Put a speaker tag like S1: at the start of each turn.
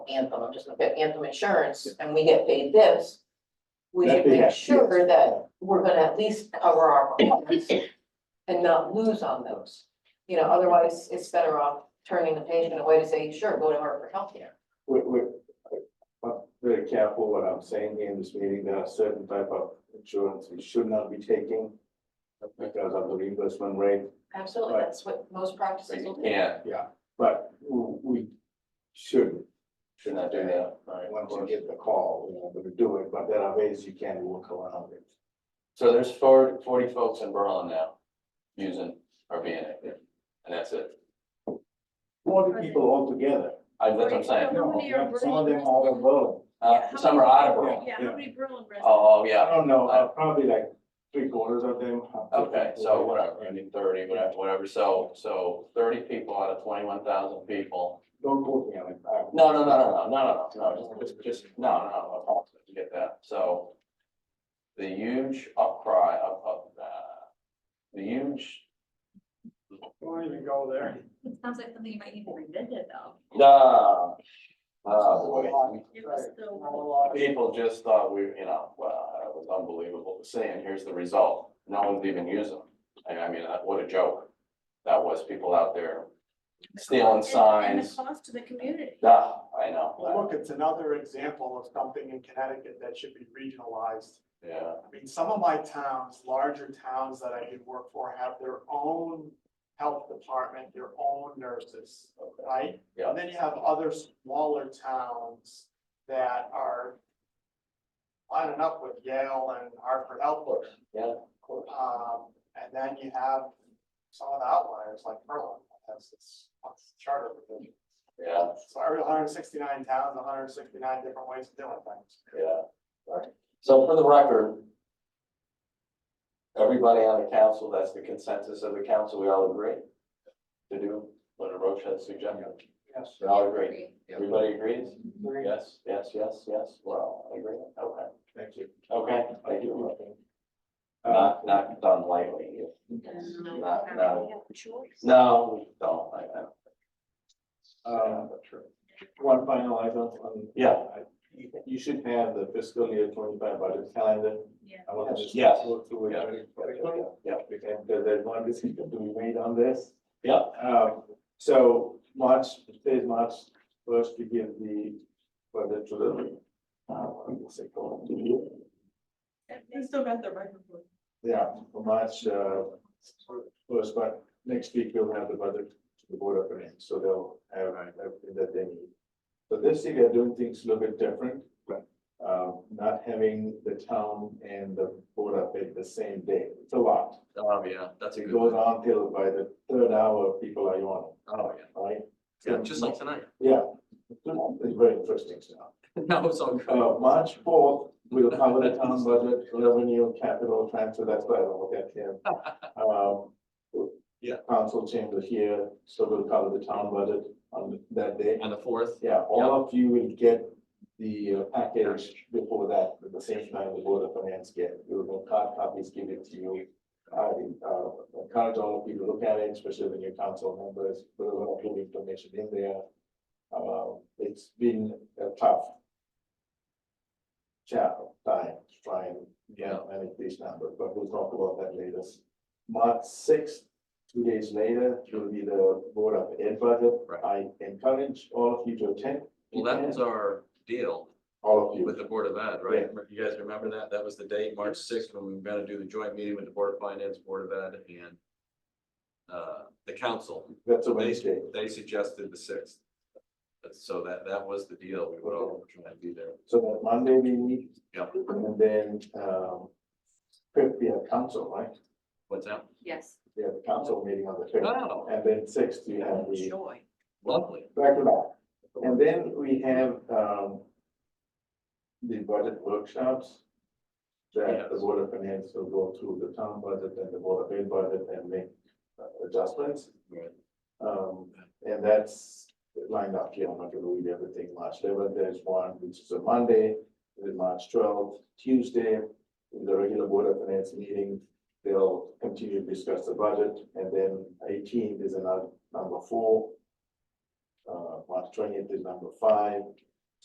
S1: Anthem, I'm just looking at Anthem Insurance, and we get paid this, we
S2: That
S1: should
S2: they
S1: make
S2: have,
S1: sure
S2: yes.
S1: that we're gonna at least cover our costs and not lose on those. You know, otherwise, it's better off turning the patient away to say, sure, go to her for healthcare.
S2: We're, we're, I'm very careful what I'm saying here in this meeting, there are certain type of insurance we should not be taking because of the reimbursement rate,
S1: Absolutely,
S2: Right.
S1: that's what most practices will do.
S3: Yeah,
S2: but w- we should,
S3: should not do that. Right.
S2: once you get the call, we're not gonna do it, but there are ways you can work around it.
S3: So there's four- 40 folks in Berlin now using our being active, and that's it.
S2: Forty people altogether,
S3: I, that's what I'm saying.
S4: How many are
S2: some of them all alone.
S4: Yeah,
S3: Uh,
S4: how
S3: some are out of
S2: many-
S3: Berlin.
S4: Yeah, how many Berlin residents?
S3: Oh, oh,
S2: I
S3: yeah.
S2: don't know, uh, probably like three quarters of them. have to-
S3: Okay, so whatever, I mean, thirty, whatever, whatever. So, so thirty people out of twenty-one thousand people.
S2: Don't quote me on it. I-
S3: No, no, no, no, no, no, no, no, just, just, just- no, no, no, no, you get that. So the huge upcry of, of, uh, the huge,
S2: Don't even go there.
S4: It sounds like something you might need to revisit though.
S3: nah, oh, ah, boy.
S4: It was so,
S3: People just thought we, you know, well, it was unbelievable to see, and here's the result. No one's even using them. And I mean, that- what a joke. That was people out there stealing
S4: and and the
S3: signs.
S4: cost to the community.
S3: Nah, I know.
S5: Well, look, it's another example of something in Connecticut that should be regionalized.
S3: Yeah,
S5: I mean, some of my towns, larger towns that I did work for have their own health department, their own nurses, right?
S3: Yeah.
S5: And then you have other smaller towns that are lining up with Yale and Hartford Health.
S3: yeah.
S5: Um, and then you have some of the outliers like Berlin, that has its charter provision.
S3: Yeah,
S5: So every hundred and sixty-nine towns, hundred and sixty-nine different ways of doing things.
S3: yeah. Right. So for the record, everybody on the council, that's the consensus of the council, we all agree to do what Roche has suggested.
S2: Yes.
S3: We all agree. Everybody agrees? Yes, yes, yes, yes. Well, I agree. Okay.
S2: Thank you.
S3: Okay, thank you.
S2: Uh,
S3: Not, not done lightly.
S1: uh,
S3: Not, Um, no,
S4: choice.
S3: no, we don't like that.
S2: um, One final item on.
S3: Yeah.
S2: You- You should have the fiscal year twenty-five budget calendar.
S4: Yeah.
S2: I want to just
S3: Yes.
S2: go through it
S3: Yeah.
S2: very quickly.
S3: Yeah,
S2: Because there's one decision to be made on this.
S3: yeah,
S2: Um, so March, today's March first, we give the, budget to the, uh, what's it called?
S4: They still got their microphone.
S2: Yeah, for March, uh, first, but next week we'll have the budget to the board of finance, so they'll have everything that they need. So this year, they're doing things a little bit different. Right. Um, not having the town and the board up at the same day, it's a lot.
S3: oh, yeah, that's a
S2: It
S3: good
S2: goes
S3: one.
S2: on till by the third hour, people are yawning,
S3: Oh, yeah.
S2: right?
S3: Yeah, just like tonight.
S2: Yeah, it's very interesting stuff.
S3: That was all good.
S2: Uh, March fourth, we'll cover the town budget, revenue, capital transfer, that's why I don't look at him. Um,
S3: Yeah.
S2: Council chamber here, so we'll cover the town budget on that day.
S3: On the fourth.
S2: Yeah, all of you will get the uh, package before that, at the same time the board of finance get, we'll make hard copies, give it to you. I uh, encourage all of you to look at it, especially the new council members, put a lot of good information in there. Uh, it's been a tough chat time to try and
S3: Yeah.
S2: manage these numbers, but we'll talk about that later. March sixth, two days later, will be the Board of Ed budget.
S6: Right.
S2: I encourage all of you to attend.
S6: Well, that was our deal
S2: All of
S6: with
S2: you.
S6: the Board of Ed, right? You guys remember that? That was the date, March sixth, when we were gonna do the joint meeting with the Board of Finance, Board of Ed, and uh, the council.
S2: That's a Wednesday.
S6: They suggested the sixth. So that, that was the deal. We would all try and be there.
S2: So that Monday we meet.
S6: Yep.
S2: And then, um, fifth, we have council, right?
S6: What's that?
S4: Yes.
S2: We have council meeting on the fifth.
S6: Oh,
S2: And then sixth, we have the
S4: Joy.
S6: lovely.
S2: back to back. And uh, then we have, um, the budget workshops. That the
S6: Yes.
S2: Board of Finance will go through the town budget and the Board of Ed budget and make uh, adjustments.
S6: Right.
S2: Um, and that's lined up here, I'm not gonna read everything, March eleventh, there's one, which is a Monday, then March twelfth, Tuesday. in The regular board of finance meeting, they'll continue to discuss the budget, and then eighteenth is another number four. Uh, March twentieth is number five,